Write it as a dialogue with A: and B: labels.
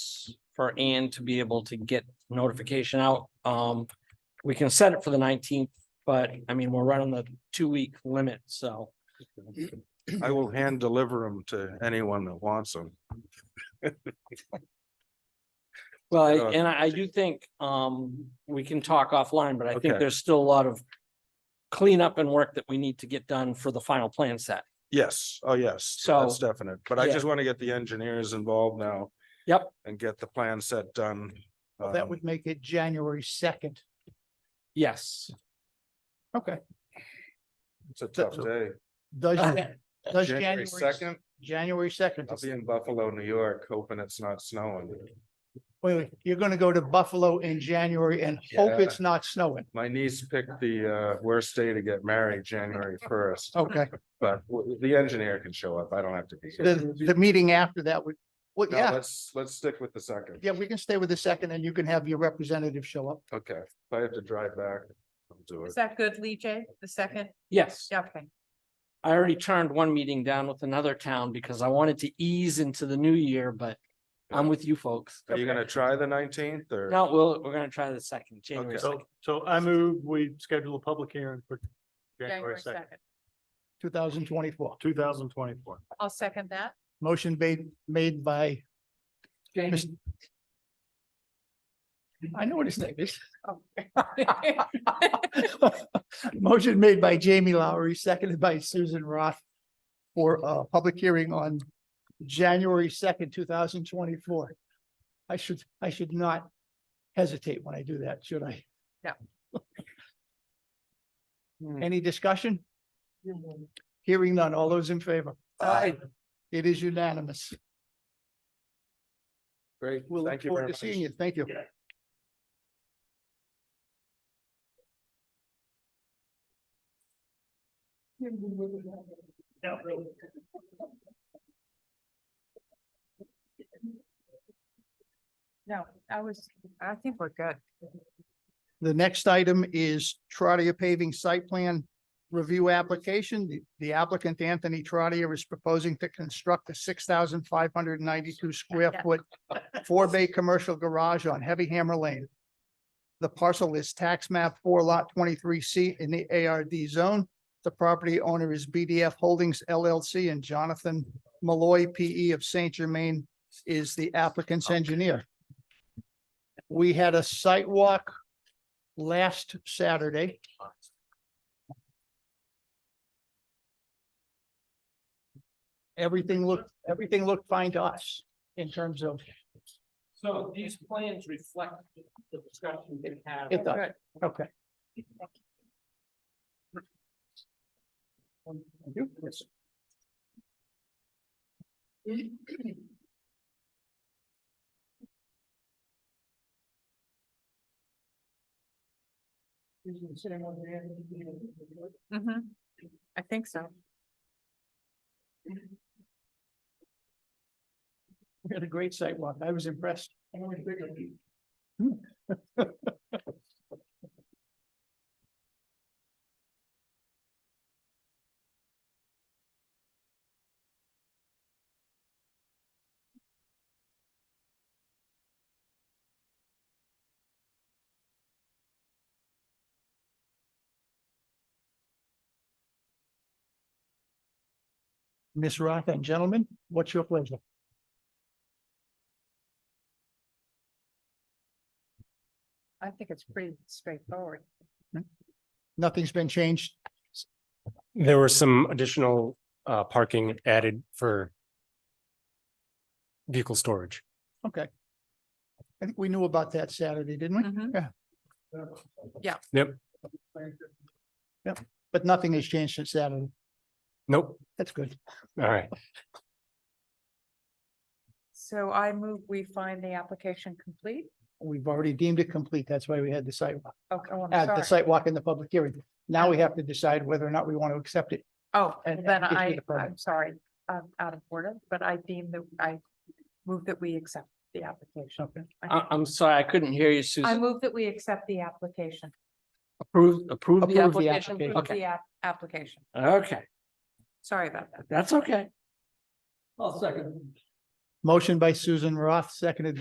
A: months for Ann to be able to get notification out. Um, we can set it for the nineteenth, but I mean, we're right on the two-week limit, so.
B: I will hand deliver them to anyone that wants them.
A: Well,
B: Uh,
A: I- and I, I do think, um, we can talk offline, but I think
B: Okay.
A: there's still a lot of cleanup and work that we need to get done for the final plan set.
B: Yes, oh, yes, that's
A: So-
B: definite, but I
A: Yeah.
B: just want to get the engineers involved now
A: Yep,
B: and get the plan set done.
C: That
B: Um,
C: would make it January second.
A: yes.
C: Okay.
B: It's a tough day.
C: Does, Jan- does
B: January
C: January,
B: second,
C: January second,
B: I'll be in Buffalo, New York, hoping it's not snowing.
C: wait, wait, you're gonna go to Buffalo in January and
B: Yeah.
C: hope it's not snowing.
B: My niece picked the uh worst day to get married, January first,
C: Okay,
B: but w- the engineer can show up. I don't have to be. here.
C: the, the meeting after that would, well,
B: No,
C: yeah,
B: let's, let's stick with the second.
C: yeah, we can stay with the second and you can have your representative show up.
B: Okay, if I have to drive back, I'll do it.
D: Is that good, Lee J? The second?
A: Yes.
D: Yeah, Okay.
A: I already turned one meeting down with another town because I wanted to ease into the new year, but I'm with you folks.
B: Are you gonna try the nineteenth or?
A: No, we'll, we're gonna try the second, January
B: Okay. So-
A: second.
E: So I move, we schedule a public hearing for
D: January
E: January second,
D: second.
C: Two thousand twenty-four.
E: two thousand twenty-four.
D: I'll second that.
C: Motion made, made by,
A: Jamie.
C: I know what his name is.
D: Oh.
C: Motion made by Jamie Lowry, seconded by Susan Roth for a public hearing on January second, two thousand twenty-four. I should, I should not hesitate when I do that, should I?
D: No.
A: Hmm.
C: Any discussion? Hearing none. All those in favor?
A: Aye.
C: It is unanimous.
B: Great,
C: We'll look
B: thank you very
C: forward to
B: much.
C: seeing you. Thank you.
D: No, I was, I think we're good.
C: The next item is Trotter paving site plan review application. The- The applicant, Anthony Trotter, is proposing to construct a six thousand five hundred ninety-two square
D: Yeah.
C: foot four bay commercial garage on Heavy Hammer Lane. The parcel is tax map four lot twenty-three C in the ARD zone. The property owner is BDF Holdings LLC and Jonathan Malloy PE of Saint Germain is the applicant's engineer. We had a site walk last Saturday. Everything looked, everything looked fine to us in terms of,
A: So these plans reflect the discussion we had.
C: it does,
D: Good.
C: okay.
D: Mhm. I think so.
C: We had a great site walk. I was impressed. Miss Roth and gentlemen, what's your pleasure?
D: I think it's pretty straightforward.
C: Nothing's been changed.
F: There were some additional uh parking added for vehicle storage.
C: Okay. I think we knew about that Saturday, didn't we?
D: Mhm.
F: Yep,
C: But nothing has changed since Saturday.
F: nope,
C: That's good.
F: all right.
D: So I move we find the application complete.
C: We've already deemed it complete. That's why we had the sidewalk,
D: Okay, oh,
C: at
D: I'm
C: the
D: sorry.
C: sidewalk in the public hearing. Now we have to decide whether or not we want to accept it.
D: Oh,
C: and-
D: then
C: and issue
D: I,
C: the permit.
D: I'm sorry, I'm out of order, but I deem that I move that we accept the application.
C: Okay.
A: I, I'm sorry, I couldn't hear you,
D: I
A: Susan.
D: move that we accept the application.
A: Approve, approve the
C: Approve the
A: application.
C: application.
D: Approve
A: Okay,
D: The app- application.
A: okay,
D: Sorry about that.
A: that's okay. I'll second.
C: Motion by Susan Roth, seconded by